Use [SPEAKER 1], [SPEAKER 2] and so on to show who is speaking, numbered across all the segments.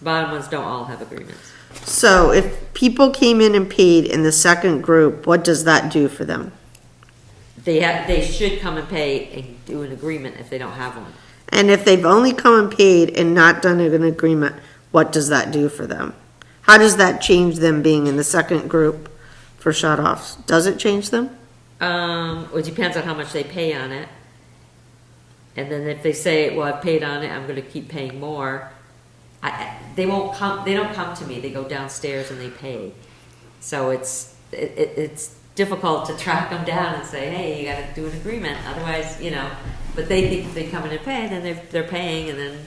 [SPEAKER 1] Bottom ones don't all have agreements.
[SPEAKER 2] So if people came in and paid in the second group, what does that do for them?
[SPEAKER 1] They have, they should come and pay and do an agreement if they don't have one.
[SPEAKER 2] And if they've only come and paid and not done an agreement, what does that do for them? How does that change them being in the second group for shut-offs? Does it change them?
[SPEAKER 1] Um, it depends on how much they pay on it. And then if they say, well, I've paid on it, I'm gonna keep paying more, I- I, they won't come, they don't come to me, they go downstairs and they pay. So it's, it, it- it's difficult to track them down and say, hey, you gotta do an agreement, otherwise, you know. But they think if they come in and pay, then they're, they're paying and then,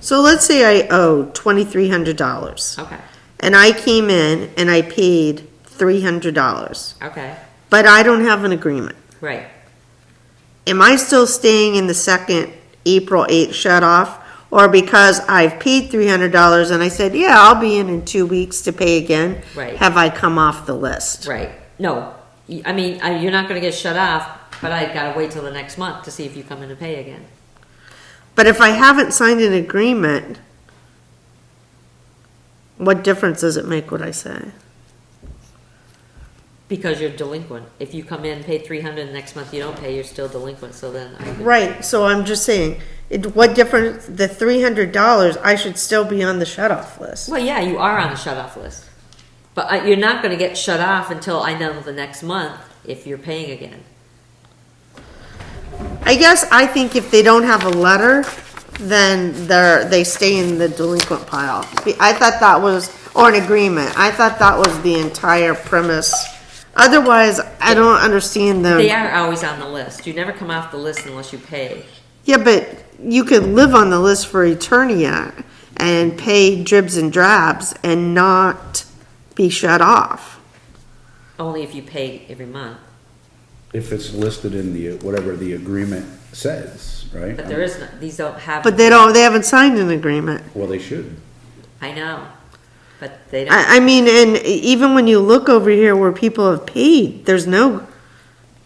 [SPEAKER 2] So let's say I owe twenty-three hundred dollars,
[SPEAKER 1] okay,
[SPEAKER 2] and I came in and I paid three hundred dollars,
[SPEAKER 1] okay,
[SPEAKER 2] but I don't have an agreement.
[SPEAKER 1] right.
[SPEAKER 2] Am I still staying in the second April eighth shut-off? Or because I've paid three hundred dollars and I said, yeah, I'll be in in two weeks to pay again?
[SPEAKER 1] Right.
[SPEAKER 2] Have I come off the list?
[SPEAKER 1] Right. No, You- I mean, I- you're not gonna get shut off, but I gotta wait till the next month to see if you come in and pay again.
[SPEAKER 2] But if I haven't signed an agreement, what difference does it make what I say?
[SPEAKER 1] Because you're delinquent. If you come in, pay three hundred, and next month you don't pay, you're still delinquent, so then I would,
[SPEAKER 2] Right, so I'm just saying, it, what difference, the three hundred dollars, I should still be on the shut-off list.
[SPEAKER 1] well, yeah, you are on the shut off list. But uh, you're not gonna get shut off until I know the next month if you're paying again.
[SPEAKER 2] I guess I think if they don't have a letter, then they're, they stay in the delinquent pile. I thought that was, or an agreement, I thought that was the entire premise. Otherwise, I don't understand them.
[SPEAKER 1] They are always on the list. You never come off the list unless you pay.
[SPEAKER 2] Yeah, but you could live on the list for Eternia and pay dribs and drabs and not be shut off.
[SPEAKER 1] Only if you pay every month,
[SPEAKER 3] If it's listed in the, whatever the agreement says, right?
[SPEAKER 1] but there is, no- these don't have.
[SPEAKER 2] But they don't, they haven't signed an agreement.
[SPEAKER 3] Well, they should.
[SPEAKER 1] I know, but they don't.
[SPEAKER 2] I, I mean, and even when you look over here where people have paid, there's no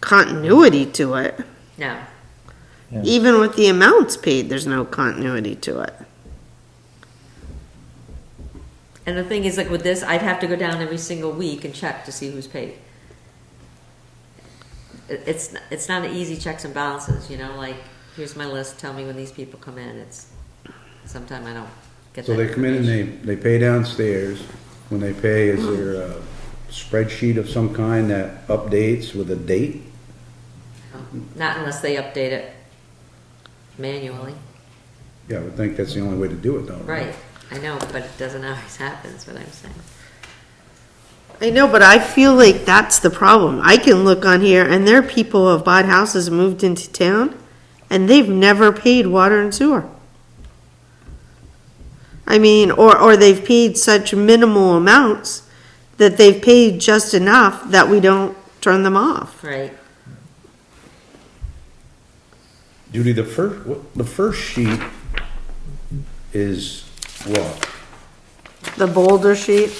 [SPEAKER 2] continuity to it.
[SPEAKER 1] No,
[SPEAKER 2] Even with the amounts paid, there's no continuity to it.
[SPEAKER 1] and the thing is, like with this, I'd have to go down every single week and check to see who's paid. It- It's it's not an easy checks and balances, you know. Like here's my list. Tell me when these people come in. It's sometime I don't get.
[SPEAKER 3] So
[SPEAKER 1] that
[SPEAKER 3] they come in and
[SPEAKER 1] information.
[SPEAKER 3] they, they pay downstairs. When they pay, is there a spreadsheet of some kind that updates with a date?
[SPEAKER 1] Not unless they update it manually,
[SPEAKER 3] Yeah, I would think that's the only way to do it though.
[SPEAKER 1] right? I know, but it doesn't always happen. Is what I'm saying.
[SPEAKER 2] I know, but I feel like that's the problem. I can look on here and there are people who have bought houses and moved into town and they've never paid water and sewer. I mean, or, or they've paid such minimal amounts that they've paid just enough that we don't turn them off.
[SPEAKER 1] Right?
[SPEAKER 3] Judy, the first, what- the first sheet is what?
[SPEAKER 2] The boulder sheet,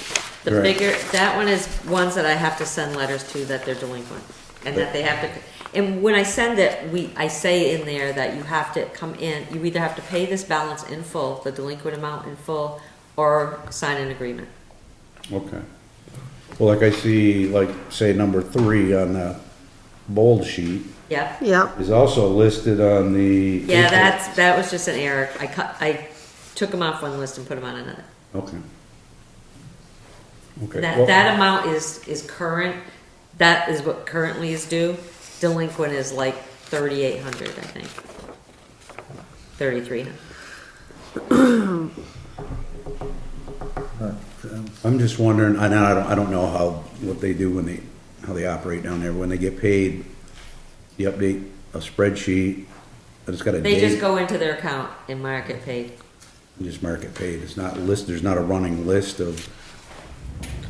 [SPEAKER 1] The
[SPEAKER 3] Right.
[SPEAKER 1] bigger, that one is ones that I have to send letters to that they're delinquent and that they have to, and when I send it, we, I say in there that you have to come in, you either have to pay this balance in full, the delinquent amount in full, or sign an agreement.
[SPEAKER 3] Okay. Well, like I see, like, say, number three on the bold sheet
[SPEAKER 1] Yep.
[SPEAKER 2] yep.
[SPEAKER 3] is also listed on the.
[SPEAKER 1] Yeah, that's, that was just an error. I cut, I took them off one list and put them on another.
[SPEAKER 3] Okay. Okay. well-
[SPEAKER 1] That, that amount is, is current, that is what currently is due. Delinquent is like thirty-eight hundred, I think. Thirty-three hundred.
[SPEAKER 3] I'm just wondering, I know, I don't, I don't know how, what they do when they, how they operate down there, when they get paid, you update a spreadsheet, but it's got a
[SPEAKER 1] They just
[SPEAKER 3] date,
[SPEAKER 1] go into their account and mark it paid.
[SPEAKER 3] and just mark it paid, it's not list, there's not a running list of,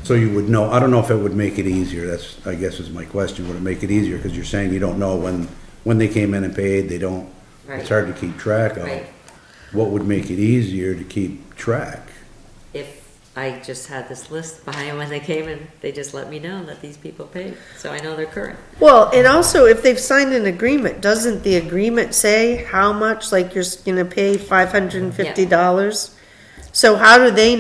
[SPEAKER 3] so you would know, I don't know if it would make it easier, that's, I guess is my question, would it make it easier, because you're saying you don't know when, when they came in and paid, they don't,
[SPEAKER 1] Right.
[SPEAKER 3] it's hard to keep track of.
[SPEAKER 1] Right.
[SPEAKER 3] What would make it easier to keep track?
[SPEAKER 1] If I just had this list behind when they came in, they just let me know that these people paid, so I know they're current.
[SPEAKER 2] Well, and also if they've signed an agreement, doesn't the agreement say how much, like you're s- gonna pay five hundred and fifty dollars? So how do they